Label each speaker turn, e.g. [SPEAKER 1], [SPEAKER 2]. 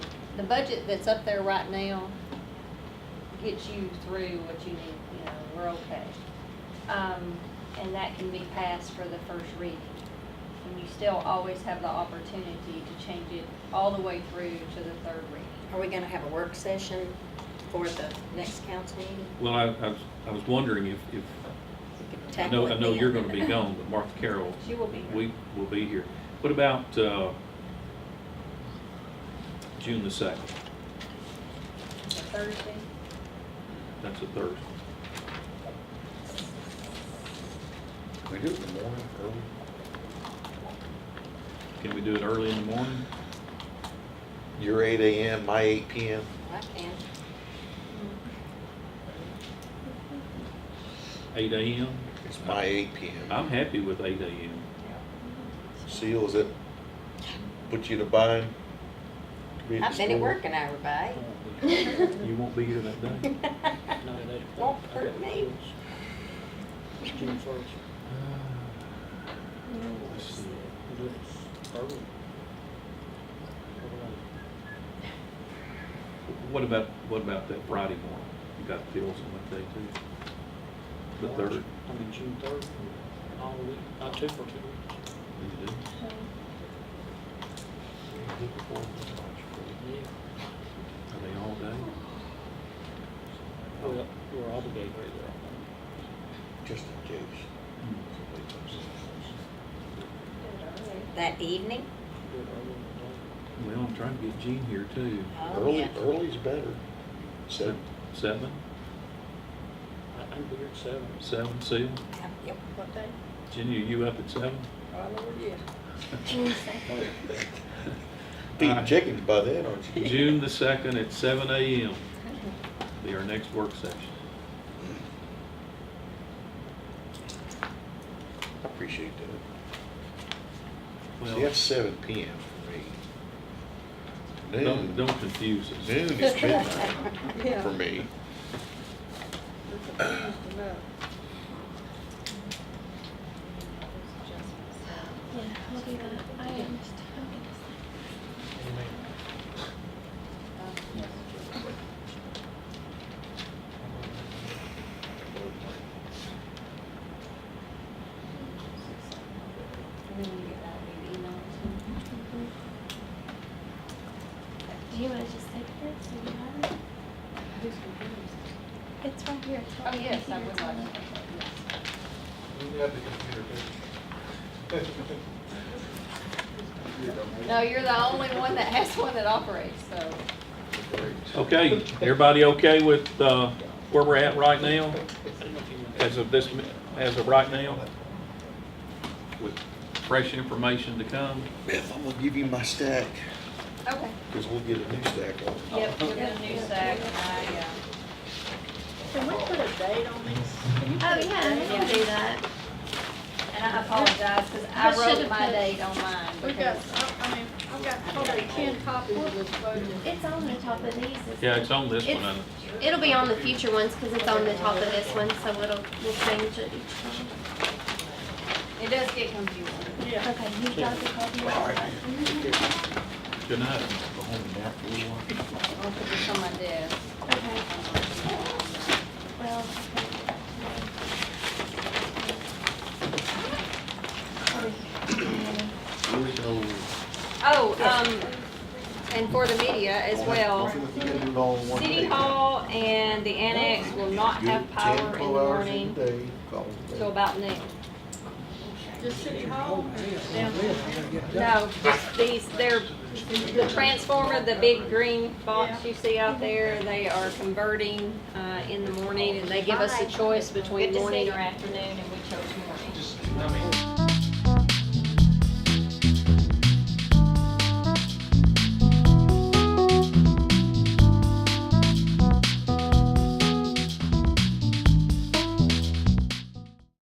[SPEAKER 1] the budget that's up there right now gets you through what you need, you know, we're okay. Um, and that can be passed for the first reading. And you still always have the opportunity to change it all the way through to the third reading.
[SPEAKER 2] Are we gonna have a work session for the next council meeting?
[SPEAKER 3] Well, I, I was, I was wondering if, if,
[SPEAKER 2] We could
[SPEAKER 3] I
[SPEAKER 2] tackle
[SPEAKER 3] know,
[SPEAKER 2] it
[SPEAKER 3] I know you're gonna
[SPEAKER 2] then.
[SPEAKER 3] be gone, but Martha Carroll,
[SPEAKER 1] She will be here.
[SPEAKER 3] we will be here. What about, uh, June the second?
[SPEAKER 1] It's a Thursday,
[SPEAKER 3] That's a Thursday.
[SPEAKER 4] Can we do it in the morning early?
[SPEAKER 3] Can we do it early in the morning?
[SPEAKER 4] Your eight AM, my eight PM.
[SPEAKER 2] I can.
[SPEAKER 3] Eight AM?
[SPEAKER 4] It's my eight PM.
[SPEAKER 3] I'm happy with eight AM.
[SPEAKER 4] Seals it, put you to bind. to be at
[SPEAKER 2] I've
[SPEAKER 4] the
[SPEAKER 2] been at
[SPEAKER 4] store.
[SPEAKER 2] work an hour by.
[SPEAKER 3] You won't be here that day?
[SPEAKER 2] Won't hurt me.
[SPEAKER 5] June first.
[SPEAKER 3] Let's see.
[SPEAKER 5] Do it early. Early.
[SPEAKER 3] What about, what about that Friday morning? You got bills on that day too? The
[SPEAKER 5] March,
[SPEAKER 3] third?
[SPEAKER 5] I mean, June third, all week, not two for two weeks.
[SPEAKER 3] You do?
[SPEAKER 5] Yeah.
[SPEAKER 3] Are they all day?
[SPEAKER 5] Well, we're obligated there.
[SPEAKER 4] Just in case.
[SPEAKER 3] Hmm.
[SPEAKER 4] somebody comes in.
[SPEAKER 2] That evening?
[SPEAKER 5] Do it early in the
[SPEAKER 3] Well, I'm trying to get Gene here too.
[SPEAKER 2] Oh,
[SPEAKER 4] Early,
[SPEAKER 2] yeah.
[SPEAKER 4] early's better. Seven,
[SPEAKER 3] Uh, Seven,
[SPEAKER 5] day. I, I'm here at seven.
[SPEAKER 3] seven, seal.
[SPEAKER 2] Yeah, Yep.
[SPEAKER 1] what day?
[SPEAKER 3] Jenny, are you up at seven?
[SPEAKER 4] feeding
[SPEAKER 3] Alright.
[SPEAKER 4] chickens by then, aren't you?
[SPEAKER 3] June the second at seven AM. Be our next work session.
[SPEAKER 4] I appreciate that. See,
[SPEAKER 3] Well,
[SPEAKER 4] that's seven PM for me.
[SPEAKER 3] don't,
[SPEAKER 4] Noon,
[SPEAKER 3] don't confuse us.
[SPEAKER 4] noon is midnight for me.
[SPEAKER 6] Yeah, I'll do that. I am just
[SPEAKER 1] And then you get that big email too.
[SPEAKER 6] Do you want to just take this? Do you have it? It's right here. It's on
[SPEAKER 1] Oh,
[SPEAKER 6] the
[SPEAKER 1] yes, I would
[SPEAKER 6] computer.
[SPEAKER 1] like to. No, you're the only one that has one that operates, so.
[SPEAKER 3] Okay, everybody okay with, uh, where we're at right now?
[SPEAKER 5] I don't know if you want-
[SPEAKER 3] As of this, mi- as of right now? With fresh information to come?
[SPEAKER 4] Beth, I'm gonna give you my stack,
[SPEAKER 1] Okay.
[SPEAKER 4] cause we'll get a new stack on.
[SPEAKER 1] Yep, we're gonna do SAC, I, uh,
[SPEAKER 7] Can we put a date on this? Can you
[SPEAKER 6] Oh,
[SPEAKER 7] put a
[SPEAKER 6] yeah, we
[SPEAKER 7] date on
[SPEAKER 6] can do that.
[SPEAKER 1] and I apologize, because
[SPEAKER 6] I
[SPEAKER 1] I wrote
[SPEAKER 6] should've
[SPEAKER 1] my
[SPEAKER 6] put-
[SPEAKER 1] date on mine.
[SPEAKER 7] We've got,
[SPEAKER 1] because-
[SPEAKER 7] I I mean, I've got probably ten copies of this budget.
[SPEAKER 6] It's on the top of these. isn't
[SPEAKER 3] Yeah,
[SPEAKER 6] it?
[SPEAKER 3] it's on this one, I know.
[SPEAKER 6] It'll be on the future ones because it's on the top of this one, so it'll, we'll change it each
[SPEAKER 1] It does get confusing.
[SPEAKER 7] Yeah.
[SPEAKER 6] time. Okay, you've got the copy of that.
[SPEAKER 3] Good night.
[SPEAKER 1] I'll put this on my desk.
[SPEAKER 6] Okay, Mm-hmm. well. okay.
[SPEAKER 4] Really no.
[SPEAKER 1] Oh, um, and for the media as well, City Hall and the annex will not have power in the morning till about noon.
[SPEAKER 7] Just City Hall or down?
[SPEAKER 1] No, just these, they're, the transformer, the big green box you see out there, they are converting, uh, in the morning, and they give us a choice between morning or afternoon, and we chose morning.
[SPEAKER 8] just, I mean,